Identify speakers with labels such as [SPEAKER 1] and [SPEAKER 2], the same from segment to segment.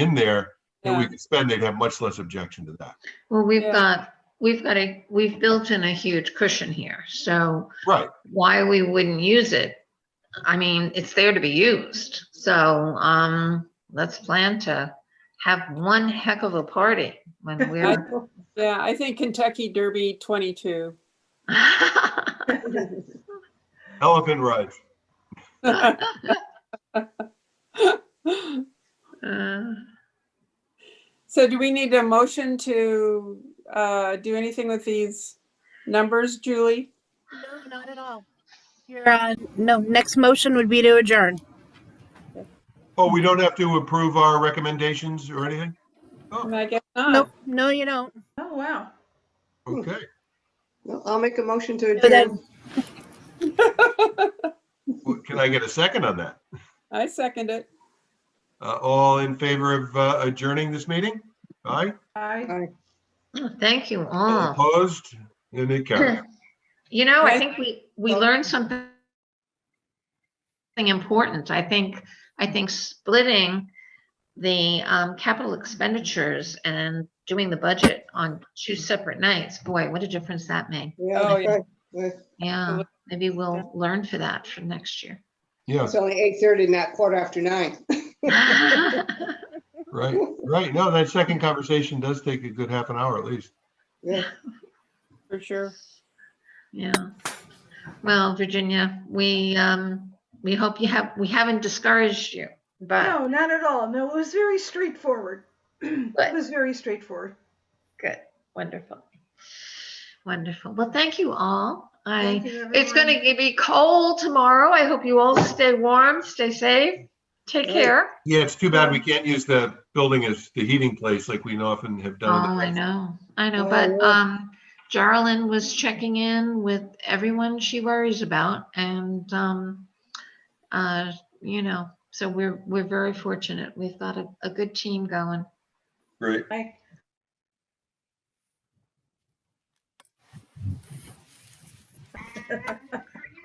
[SPEAKER 1] in there that we
[SPEAKER 2] Yeah.
[SPEAKER 1] could spend, they'd have much less objection to that.
[SPEAKER 3] Well, we've
[SPEAKER 2] Yeah.
[SPEAKER 3] got, we've got a, we've built in a huge cushion here, so
[SPEAKER 1] Right,
[SPEAKER 3] why we wouldn't use it? I mean, it's there to be used, so, um, let's plan to have one heck of a party when
[SPEAKER 2] I-
[SPEAKER 3] we're.
[SPEAKER 2] Yeah, I think Kentucky Derby 22.
[SPEAKER 1] elephant rides.
[SPEAKER 2] So
[SPEAKER 3] Uh,
[SPEAKER 2] do we need a motion to uh, do anything with these numbers, Julie?
[SPEAKER 4] No, not at all. Your, uh, no, next motion would be to adjourn.
[SPEAKER 1] Oh, we don't have to approve our recommendations or anything?
[SPEAKER 2] I guess not.
[SPEAKER 4] Nope, no, you don't.
[SPEAKER 5] Oh, wow.
[SPEAKER 3] Hmm.
[SPEAKER 1] Okay,
[SPEAKER 5] Well, I'll make a motion to
[SPEAKER 4] But then-
[SPEAKER 5] adjourn.
[SPEAKER 1] Well, can I get a second on that?
[SPEAKER 2] I second it.
[SPEAKER 1] Uh, all in favor of uh, adjourning this meeting? Aye,
[SPEAKER 5] Aye.
[SPEAKER 3] Thank you
[SPEAKER 1] All
[SPEAKER 3] all.
[SPEAKER 1] opposed, and it carries.
[SPEAKER 3] You know, I
[SPEAKER 2] Right.
[SPEAKER 3] think we, we learned something something important. I think, I think splitting the um, capital expenditures and doing the budget on two separate nights, boy, what a difference that made.
[SPEAKER 2] Oh,
[SPEAKER 6] Yeah,
[SPEAKER 2] yeah.
[SPEAKER 6] okay.
[SPEAKER 3] Yeah, maybe we'll learn for that for next year.
[SPEAKER 1] Yes,
[SPEAKER 6] it's only eight thirty, not quarter after nine.
[SPEAKER 1] right, right. No, that second conversation does take a good half an hour at least.
[SPEAKER 6] Yeah.
[SPEAKER 2] For sure.
[SPEAKER 3] Yeah. Well, Virginia, we, um, we hope you have, we haven't discouraged you, but
[SPEAKER 5] No, not at all. No, it was very straightforward. It was very straightforward.
[SPEAKER 3] good, wonderful. Wonderful. Well, thank you all. I,
[SPEAKER 5] Thank you,
[SPEAKER 3] it's
[SPEAKER 5] everyone.
[SPEAKER 3] going to be cold tomorrow. I hope you all stay warm, stay safe. Take
[SPEAKER 6] Right.
[SPEAKER 3] care.
[SPEAKER 1] Yeah, it's too bad we can't use the building as the heating place like we often have
[SPEAKER 3] Oh,
[SPEAKER 1] done. in the
[SPEAKER 3] I
[SPEAKER 1] past.
[SPEAKER 3] know, I know,
[SPEAKER 6] Yeah,
[SPEAKER 3] but,
[SPEAKER 6] yeah.
[SPEAKER 3] um, Jarlin was checking in with everyone she worries about and, um, uh, you know, so we're, we're very fortunate. We've got a, a good team going.
[SPEAKER 1] Great.
[SPEAKER 5] Aye.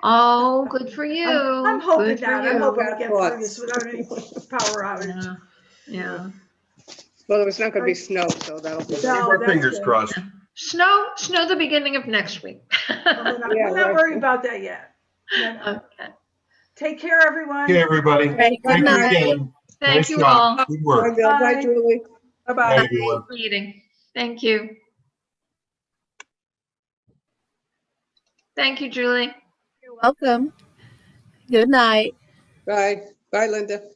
[SPEAKER 3] Oh, good for you.
[SPEAKER 5] I'm hoping
[SPEAKER 3] good for
[SPEAKER 5] not. I'm
[SPEAKER 3] you.
[SPEAKER 5] hoping to get through
[SPEAKER 6] Thoughts.
[SPEAKER 5] this without any power outage.
[SPEAKER 3] Yeah, Yeah.
[SPEAKER 6] Well, there's not gonna be snow, so that'll be.
[SPEAKER 1] Keep
[SPEAKER 5] No,
[SPEAKER 1] our
[SPEAKER 5] Oh, that's
[SPEAKER 1] fingers
[SPEAKER 5] good.
[SPEAKER 1] crossed.
[SPEAKER 3] Snow, snow the beginning of next week.
[SPEAKER 5] We're not-
[SPEAKER 6] Yeah,
[SPEAKER 5] we're not
[SPEAKER 6] right.
[SPEAKER 5] worried about that yet. No, no.
[SPEAKER 3] Okay.
[SPEAKER 5] Take care, everyone.
[SPEAKER 1] Okay, everybody.
[SPEAKER 4] Right, good
[SPEAKER 1] Thank you
[SPEAKER 4] night.
[SPEAKER 1] again.
[SPEAKER 3] Thank
[SPEAKER 1] Nice
[SPEAKER 3] you all.
[SPEAKER 1] job. Good
[SPEAKER 6] Bye,
[SPEAKER 1] work.
[SPEAKER 6] Bill. Bye,
[SPEAKER 5] Bye.
[SPEAKER 6] Julie.
[SPEAKER 1] Bye,
[SPEAKER 2] Bye-bye.
[SPEAKER 1] everyone.
[SPEAKER 3] Meeting. Thank you. Thank you, Julie.
[SPEAKER 4] You're welcome. Good night.
[SPEAKER 6] Bye. Bye, Linda.